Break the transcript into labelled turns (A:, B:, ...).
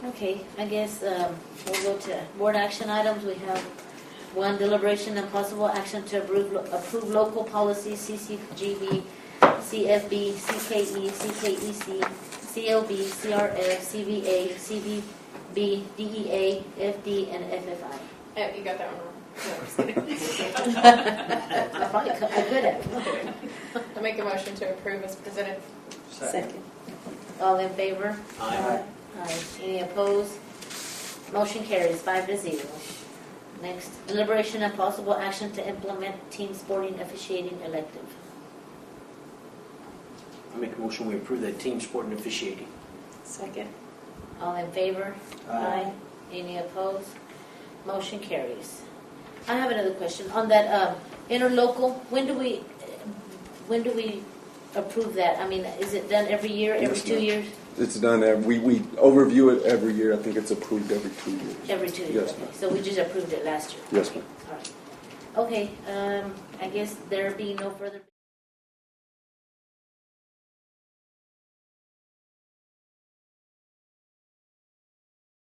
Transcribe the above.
A: Okay, I guess um, we'll go to board action items. We have one deliberation and possible action to approve, approve local policy CCGB, CFB, CKE, CKEC, CLB, CRF, CVA, CVB, DEA, FD, and FFI.
B: Oh, you got that one wrong. No, I'm just kidding.
A: I'm probably co- I'm good at it.
B: I make a motion to approve as presented.
C: Second.
A: All in favor?
D: Aye.
A: Aye. Any opposed? Motion carries five to zero. Next, deliberation and possible action to implement team sporting officiating elective.
D: I make a motion, we approve that team sport and officiating.
C: Second.
A: All in favor?
D: Aye.
A: Any opposed? Motion carries. I have another question. On that um, interlocal, when do we, when do we approve that? I mean, is it done every year, every
E: Yes,
A: two
E: ma'am.
A: years?
E: It's done, ev- we, we overview it every year, I think it's approved every two years.
A: Every two years?
E: Yes, ma'am.
A: okay. So we just approved it last year?
E: Yes, ma'am.
A: All right. Okay, um, I guess there being no further